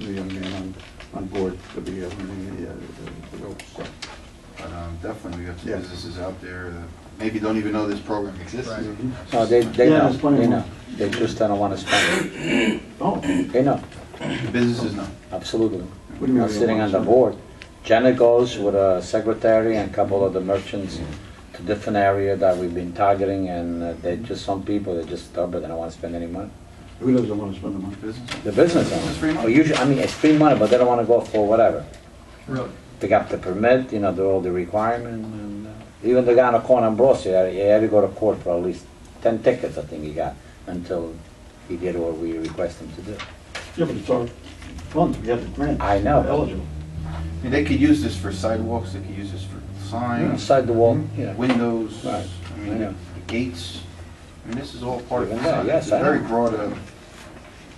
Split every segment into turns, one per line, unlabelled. a young man on, on board to be able to, uh, to go, so.
But um, definitely, we got some
Yeah.
businesses out there that maybe don't even know this program exists.
Right.
mhm.
No, Uh, they, they
Yeah,
know,
there's plenty
they
more.
know. They just don't wanna spend it.
Oh, what do
They know,
The Businesses know.
absolutely.
you mean?
Not sitting on the board. Janet goes with a secretary and a couple of the merchants to different area that we've been targeting, and uh, they just, some people, they're just stubborn, they don't wanna spend any money.
Who doesn't want to spend the money?
Business.
The business
It's
owners,
free money.
or usually, I mean, it's free money, but they don't wanna go for whatever.
Really?
They got the permit, you know, do all the requirement, and uh, even the guy on the corner on Broad Street, he had to go to court for at least ten tickets, I think he got, until he did what we request him to do.
Yeah, but it's our funds, we have the grant.
I know.
Eligible.
I mean, they could use this for sidewalks, they could use this for signs,
Inside the wall, yeah.
windows, I
Right. I know.
mean, gates. I mean, this is all part of
Even
it.
that, yes,
It's a
I
very
know.
broad, uh,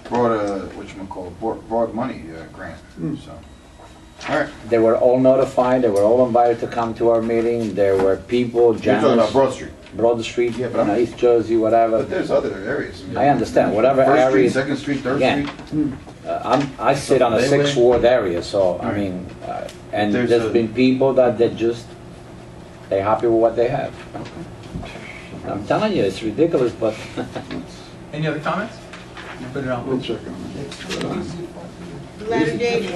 broad, uh, whatchamacallit, broad- broad money uh, grant,
Mm.
so. All right,
They were all notified, they were all invited to come to our meeting, there were people,
you're talking about
Janice,
Broad Street,
Broad Street, you
Yeah, but I'm-
know, East Jersey,
but
whatever.
there's other areas. mean,
I understand, whatever
First Street,
areas, uh,
Second Street, Third
Again,
Street.
I'm, I sit on a
Gateway.
sixth ward area, so, I
Right.
mean, uh, and
There's a-
there's been people that they just, they happy with what they have. I'm telling you, it's ridiculous, but
Any other comments? Put it
We'll
on.
check on it.
Letter dated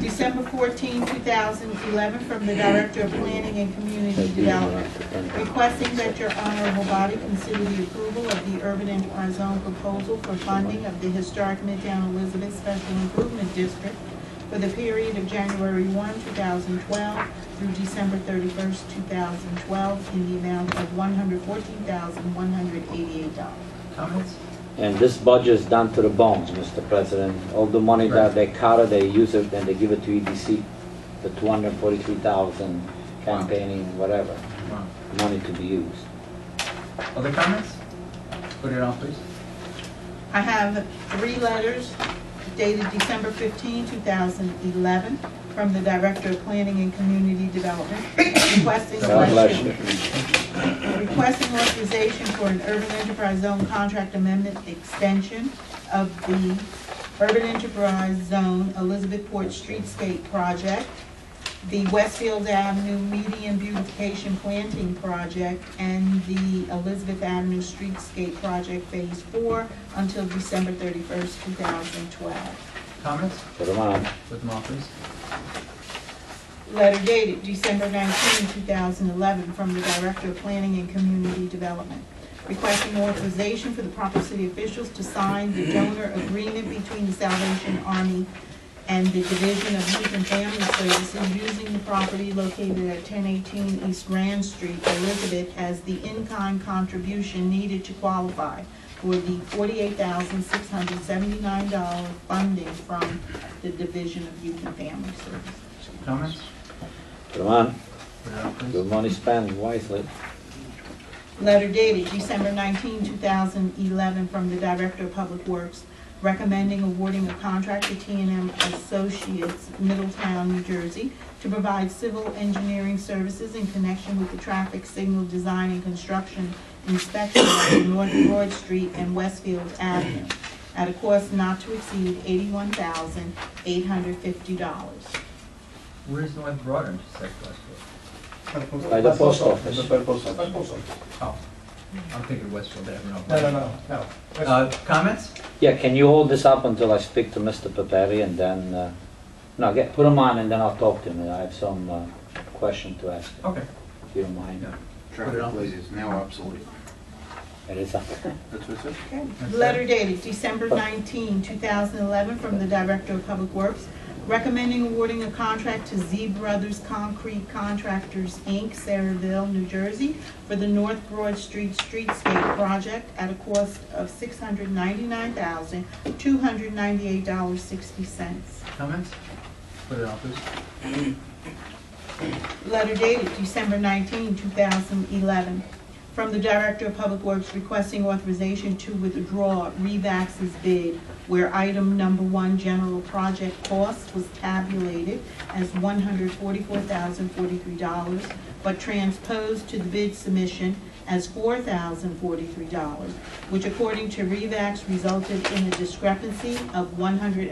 December 14, 2011, from the Director of Planning and
they
Community
do
Development,
have to turn it.
requesting that your honorable body consider the approval of the urban enterprise zone proposal for funding of the historic Midtown Elizabeth Special Improvement District for the period of January 1, 2012 through December 31, 2012, in the amount of $114,188.
Comments?
And this budget is down to the bones, Mr. President. All the money that they cut, they use it, and they give it to EDC, the two hundred and forty-three thousand campaigning, whatever,
Wow.
money to be used.
Other comments? Put it on, please.
I have three letters dated December 15, 2011, from the Director of Planning and Community Development requesting
God bless
selection
you.
requesting authorization for an urban enterprise zone contract amendment extension of the urban enterprise zone Elizabethport Streetscape Project, the Westfield Avenue Median Beautification Planting Project, and the Elizabeth Avenue Streetscape Project Phase Four until December thirty-first, two thousand twelve.
Comments?
Put them on.
Put them on, please.
Letter dated December 19, 2011, from the Director of Planning and Community Development, requesting authorization for the proper city officials to sign the donor agreement between the Salvation Army and the Division of Youth and Family Services using the property located at 1018 East Grand Street, Elizabeth, as the in-kind contribution needed to qualify for the $48,679 funding from the Division of Youth and Family Services.
Comments?
Put them on.
Put it on,
Good
please.
money spent wisely.
Letter dated December 19, 2011, from the Director of Public Works recommending awarding a contract to t and m Associates, Middletown, New Jersey, to provide civil engineering services in connection with the traffic signal design and construction inspection of North Broad Street and Westfield Avenue at a cost not to exceed $81,850.
Where's North Broad? I'm just like, Westfield.
By the post office.
By the post office.
Oh, I'm thinking Westfield Avenue.
No, no, no, no.
Uh, comments?
Yeah, can you hold this up until I speak to Mr. Papari and then, uh, no, get, put them on and then I'll talk to him. I have some, uh, question to ask, him,
Okay.
if you don't mind.
Yeah.
Traffic light is now obsolete.
It is up.
That's what it says.
That's
Letter
it.
dated December 19, 2011, from the Director of Public Works, recommending awarding a contract to Z Brothers Concrete Contractors, Inc., Saraville, New Jersey, for the North Broad Street Streetscape Project at a cost of $699,298.60.
Comments? Put it on, please.
Letter dated December 19, 2011, from the Director of Public Works requesting authorization to withdraw Revax's bid where item number one, general project cost, was tabulated as $144,043, but transposed to the bid submission as $4,043, which according to Revax resulted in a discrepancy of 100.